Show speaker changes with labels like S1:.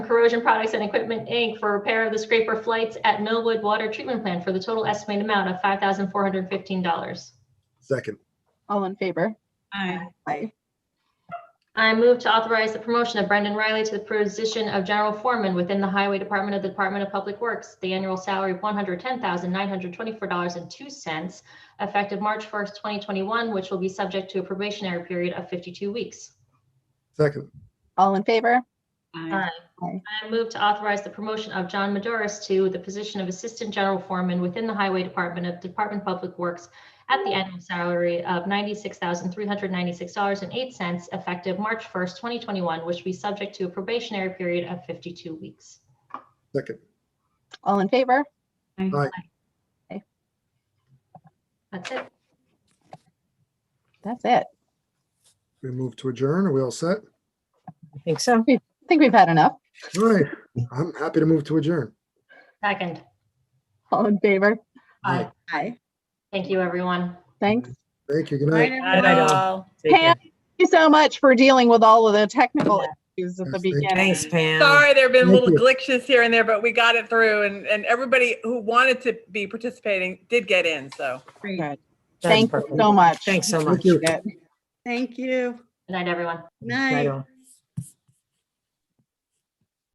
S1: Corrosion Products and Equipment, Inc. for repair of the scraper flights at Millwood Water Treatment Plant for the total estimated amount of $5,415.
S2: second,
S3: All in favor?
S4: aye,
S3: Aye.
S1: I move to authorize the promotion of Brendan Riley to the position of general foreman within the Highway Department of the Department of Public Works. The annual salary of $110,924.02 effective March 1st, 2021, which will be subject to a probationary period of 52 weeks.
S2: second,
S3: All in favor?
S4: aye,
S1: I move to authorize the promotion of John Maduris to the position of Assistant General Foreman within the Highway Department of Department of Public Works at the annual salary of $96,396.08 effective March 1st, 2021, which will be subject to a probationary period of 52 weeks.
S2: second,
S3: All in favor?
S1: That's it.
S3: That's it.
S2: we move to adjourn. Are we all set?
S5: I think so.
S3: I think we've had enough.
S2: All right, I'm happy to move to adjourn.
S1: Second.
S3: All in favor?
S4: aye.
S3: Aye.
S1: Thank you, everyone.
S3: Thanks.
S2: Thank you, good night.
S4: Right,
S5: Aye, aye,
S4: everyone.
S5: all. Take care.
S3: Pam, thank you so much for dealing with all of the technical issues at
S2: Yes,
S3: the
S2: thank you.
S3: beginning.
S5: Thanks, Pam.
S6: Sorry, there have been
S2: Thank
S6: little
S2: you.
S6: glitches here and there, but we got it through and, and everybody who wanted to be participating did get in, so.
S4: Great.
S3: Good.
S5: That's
S3: Thank you
S5: perfect.
S3: so much.
S5: Thanks so
S2: Thank
S5: much.
S2: you.
S3: Good.
S4: Thank you.
S1: Good night, everyone.
S5: Right
S4: Night.
S5: on.